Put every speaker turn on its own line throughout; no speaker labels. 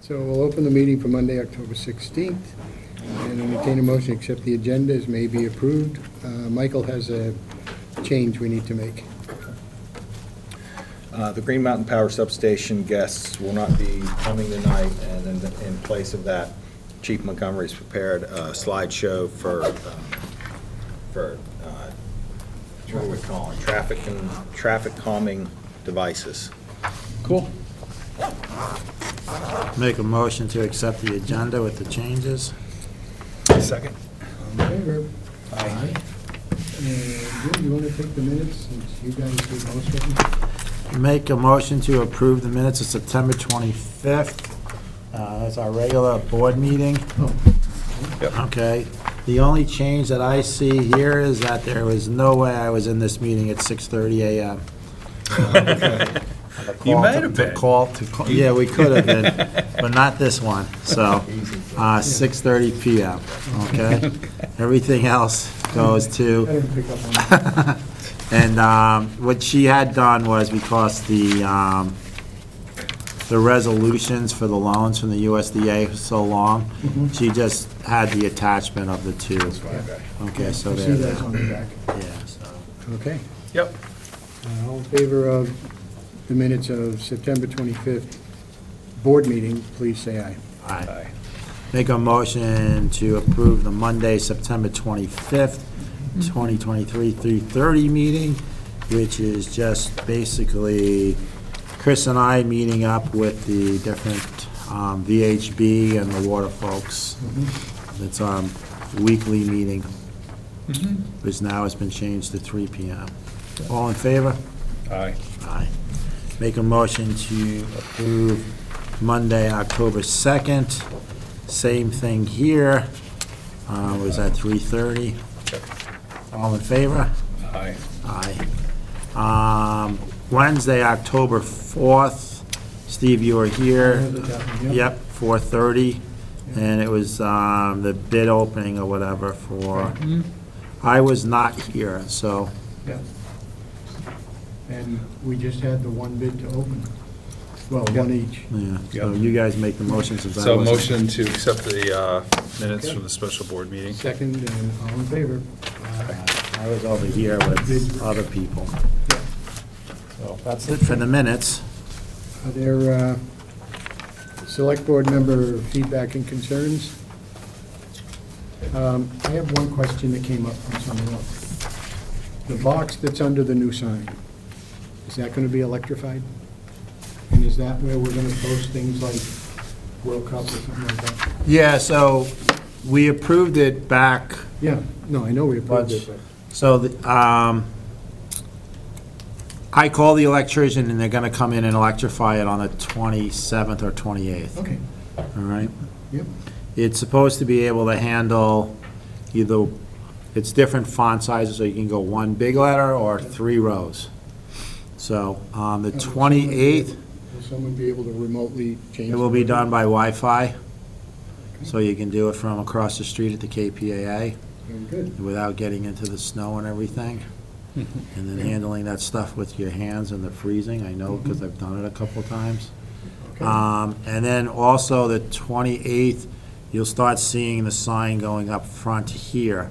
So we'll open the meeting for Monday, October 16th, and entertain a motion, to accept the agenda as may be approved. Uh, Michael has a change we need to make.
Uh, The Green Mountain Power Substation guests will not be coming tonight, and in- in place of that, Chief Montgomery's prepared a slideshow for, um, for, uh, what are we calling, traffic and, traffic calming devices.
Cool.
Make a motion to accept the agenda with the changes.
Second.
All in favor? Aye. And Jim, you want to take the minutes, since you guys did most of them?
Make a motion to approve the minutes of September 25th. Uh, That's our regular board meeting. Okay. The only change that I see here is that there was no way I was in this meeting at 6:30 a.m.
You might have
To
been.
Call to, call- yeah, we could have been, but not this one. So, uh, 6:30 p.m., okay? Everything else goes to...
I didn't pick up on that.
And um, what she had done was because the, um, the resolutions for the loans from the USDA was so long,
Mm-hmm.
she just had the attachment of the two. Okay, so
You see
there,
that on
yeah,
the back.
so.
Okay.
Yep.
Uh, All in favor of the minutes of September 25th board meeting, please say aye.
All right.
Aye.
Make a motion to approve the Monday, September 25th, 2023, 3:30 meeting, which is just basically Chris and I meeting up with the different um, VHB and the water folks.
Mm-hmm.
It's our weekly meeting,
Mm-hmm.
which now has been changed to 3 PM. All in favor?
Aye.
Aye. Make a motion to approve Monday, October 2nd. Same thing here. Uh, Was that 3:30? All in favor?
Aye.
Aye. Um, Wednesday, October 4th. Steve, you were
I
here.
have the document, yeah.
Yep, 4:30. And it was um, the bid opening or whatever for,
Mm-hmm.
I was not here, so,
Yeah. And we just had the one bid to open. Well, one each.
yeah. So
Yep.
you guys make the motion since I
So
wasn't.
motion to accept the uh, minutes from the special board meeting.
Second, and all in favor?
I was over here with other people. So That's it for the minutes.
Are there uh, select board member feedback and concerns? Um, I have one question that came up from someone else. The box that's under the new sign, is that going to be electrified? And is that where we're going to post things like World Cup or something like that?
Yeah, so we approved it back,
Yeah, no, I know we approved it, but...
so the, um, I call the electrician and they're going to come in and electrify it on the 27th or 28th, all
Okay,
right?
yep.
It's supposed to be able to handle either, it's different font sizes, so you can go one big letter or three rows. So on the
Now, will someone be
28th,
able- Will someone be able to remotely change?
It will be
the-
done by Wi-Fi, so you can do it from across the street at the KPAA
Very good.
without getting into the snow and everything. And then handling that stuff with your hands and the freezing, I know, because I've done it a couple times.
Okay.
Um, And then also the 28th, you'll start seeing the sign going up front here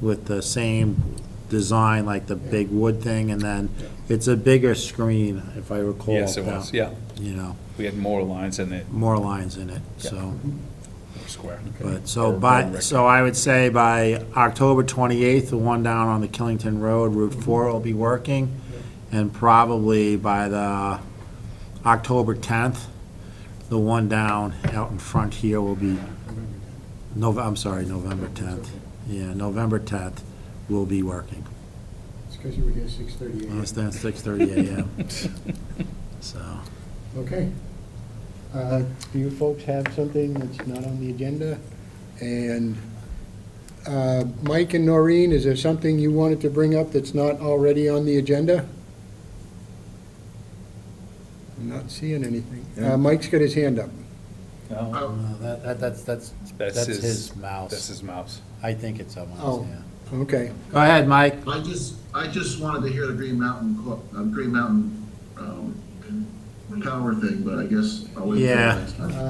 with the same design, like the big wood thing, and then it's a bigger screen, if I recall.
Yes, it was, yeah.
You know,
We had more lines in it,
more lines in it, so.
square.
But, so by, so I would say by October 28th, the one down on the Killington Road, Route 4 will be working, and probably by the October 10th, the one down out in front here will be, Nov, I'm sorry, November 10th. Yeah, November 10th will be working,
It's because you were here six thirty AM.
unless that's 6:30 a.m. So,
Okay. Uh, Do you folks have something that's not on the agenda? And uh, Mike and Noreen, is there something you wanted to bring up that's not already on the agenda? I'm not seeing anything. Uh, Mike's got his hand up.
No,
no, uh, that, that- that's, that's,
That's
that's
his-
his mouse.
That's his mouse.
I think it's someone
Oh.
else, yeah.
Okay.
Go ahead, Mike.
I just, I just wanted to hear the Green Mountain, co- uh, Green Mountain, um, power thing, but I guess I'll wait for
Yeah.
next time.